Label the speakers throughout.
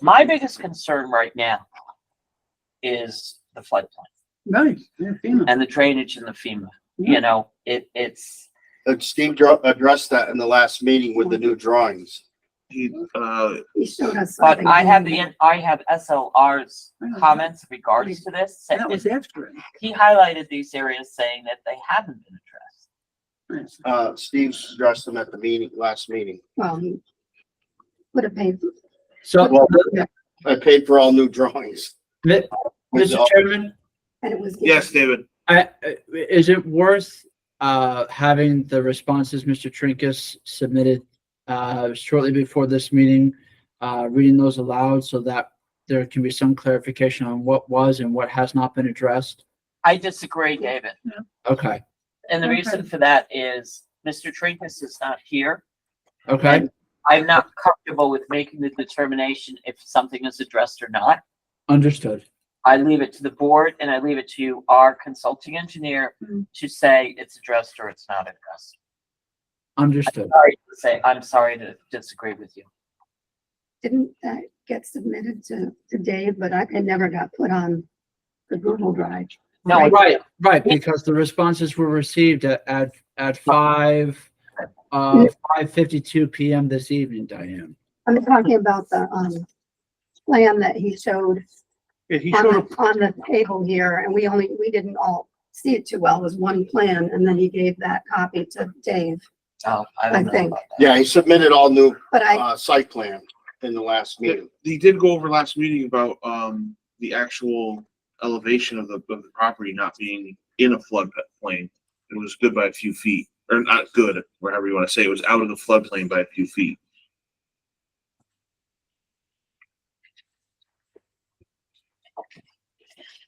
Speaker 1: My biggest concern right now is the floodplain
Speaker 2: Nice, yeah, FEMA.
Speaker 1: and the drainage in the FEMA. You know, it, it's,
Speaker 3: Uh, Steve dr- addressed that in the last meeting with the new drawings.
Speaker 4: He, uh,
Speaker 5: He showed us
Speaker 1: but
Speaker 5: something.
Speaker 1: I have the, I have SLR's comments regards to this.
Speaker 2: And That was after
Speaker 1: He highlighted these areas saying that they haven't been addressed.
Speaker 2: it.
Speaker 3: Uh, Steve's addressed them at the meeting, last meeting.
Speaker 5: Well, he Would have paid,
Speaker 6: So, uh,
Speaker 3: Well, I paid for all new drawings.
Speaker 6: Mi- Mr. Chairman,
Speaker 5: and it was.
Speaker 4: yes, David,
Speaker 6: I, I- is it worth, uh, having the responses Mr. Trinkus submitted, uh, shortly before this meeting, uh, reading those aloud so that there can be some clarification on what was and what has not been addressed?
Speaker 1: I disagree, David.
Speaker 6: Okay,
Speaker 1: And the reason for that is Mr. Trinkus is not here.
Speaker 6: okay,
Speaker 1: I'm not comfortable with making the determination if something is addressed or not.
Speaker 6: understood.
Speaker 1: I leave it to the board and I leave it to our consulting engineer
Speaker 5: Mm.
Speaker 1: to say it's addressed or it's not addressed.
Speaker 6: Understood.
Speaker 1: Sorry to say, I'm sorry to disagree with you.
Speaker 5: Didn't that uh, get submitted to, to Dave, but I, it never got put on the Google Drive.
Speaker 1: No, I-
Speaker 6: Right, right, because the responses were received at, at, at five, uh, five fifty-two PM this evening, Diane.
Speaker 5: I'm talking about the, um, plan that he showed
Speaker 2: Yeah, he
Speaker 5: on,
Speaker 2: showed up,
Speaker 5: the- on the table here, and we only, we didn't all see it too well, it was one plan, and then he gave that copy to Dave.
Speaker 1: Oh, I
Speaker 5: I
Speaker 1: don't know
Speaker 5: think.
Speaker 1: about that.
Speaker 3: Yeah, he submitted all new,
Speaker 5: But I,
Speaker 3: uh, site plan in the last meeting.
Speaker 4: he did go over last meeting about, um, the actual elevation of the, of the property not being in a floodplain. It was good by a few feet, or not good, whatever you wanna say, it was out of the floodplain by a few feet.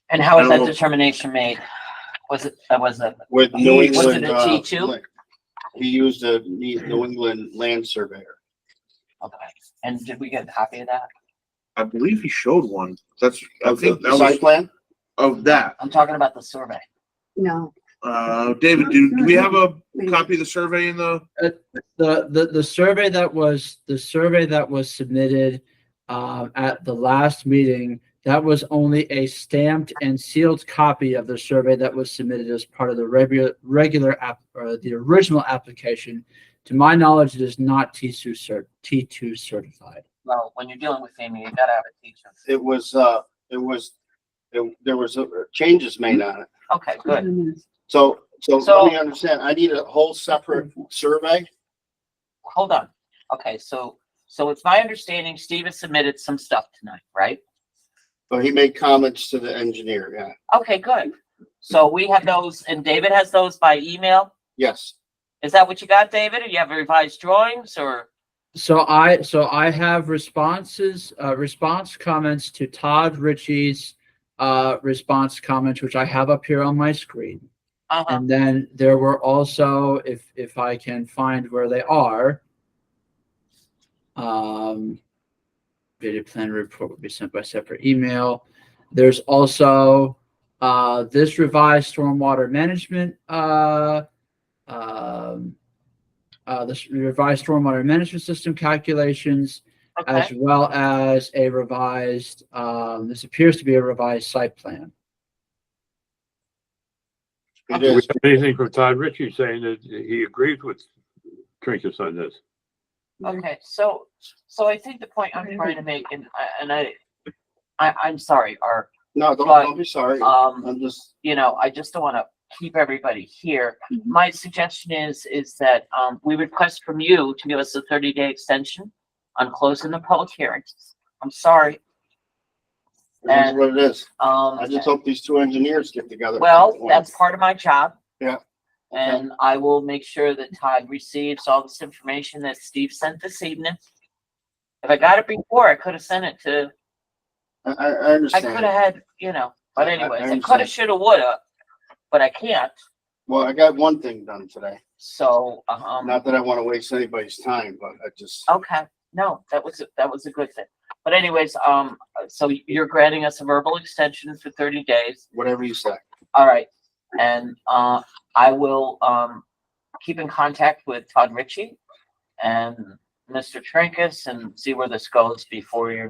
Speaker 1: And how was
Speaker 4: I
Speaker 1: that
Speaker 4: don't know.
Speaker 1: determination made? Was it, that was a,
Speaker 3: With New
Speaker 1: Was it
Speaker 3: England,
Speaker 1: a
Speaker 3: uh,
Speaker 1: T2?
Speaker 3: like, he used a New England land surveyor.
Speaker 1: okay. And did we get a copy of that?
Speaker 4: I believe he showed one, that's, I
Speaker 3: The
Speaker 4: think that was
Speaker 3: site plan?
Speaker 4: of that.
Speaker 1: I'm talking about the survey.
Speaker 5: no.
Speaker 4: Uh, David, do, do we have a copy of the survey in the?
Speaker 6: The, the, the survey that was, the survey that was submitted, um, at the last meeting, that was only a stamped and sealed copy of the survey that was submitted as part of the regular, regular app, or the original application. To my knowledge, it is not T two cert, T two certified.
Speaker 1: Well, when you're dealing with FEMA, you gotta have a teacher.
Speaker 3: It was, uh, it was, it- there was uh, changes made on it.
Speaker 1: Okay, good.
Speaker 3: So, so
Speaker 1: So-
Speaker 3: let me understand, I need a whole separate survey?
Speaker 1: Hold on. Okay, so, so it's my understanding Steve has submitted some stuff tonight, right?
Speaker 3: But he made comments to the engineer, yeah,
Speaker 1: Okay, good. So we have those, and David has those by email.
Speaker 3: yes.
Speaker 1: Is that what you got, David? Or you have revised drawings or?
Speaker 6: So I, so I have responses, uh, response comments to Todd Ritchie's, uh, response comments, which I have up here on my screen.
Speaker 1: Uh-huh.
Speaker 6: And then there were also, if, if I can find where they are, um, video plan report will be sent by separate email. There's also, uh, this revised stormwater management, uh, um, uh, this revised stormwater management system calculations, as
Speaker 1: Okay,
Speaker 6: well as a revised, um, this appears to be a revised site plan.
Speaker 3: It
Speaker 7: Do we
Speaker 3: is,
Speaker 7: have anything from Todd Ritchie saying that he agrees with Trinkus on this?
Speaker 1: okay. So, so I think the point I'm trying to make and, I- and I, I, I'm sorry, Art.
Speaker 3: no, don't, don't be sorry,
Speaker 1: Um,
Speaker 3: I'm just,
Speaker 1: you know, I just don't want to keep everybody here.
Speaker 5: Mhm.
Speaker 1: My suggestion is, is that, um, we request from you to give us a thirty day extension on closing the public hearings. I'm sorry,
Speaker 3: that's what it is.
Speaker 1: um,
Speaker 3: I just hope these two engineers get together. at
Speaker 1: well,
Speaker 3: some point.
Speaker 1: that's part of my job.
Speaker 3: uh, Yeah.
Speaker 1: And I will make sure that Todd receives all this information that Steve sent this evening. If I got it before, I could have sent it to,
Speaker 3: I, I, I
Speaker 1: I could have
Speaker 3: understand.
Speaker 1: had, you know, but
Speaker 3: I- I
Speaker 1: anyways, I could have,
Speaker 3: understand.
Speaker 1: should have, would have, but I can't,
Speaker 3: Well, I got one thing done today.
Speaker 1: so, um.
Speaker 3: Not that I want to waste anybody's time, but I just,
Speaker 1: Okay, no, that was, a- that was a good thing. But anyways, um, so you're granting us a verbal extension for thirty days.
Speaker 3: whatever you say.
Speaker 1: All right. And, uh, I will, um, keep in contact with Todd Ritchie and Mr. Trinkus and see where this goes before your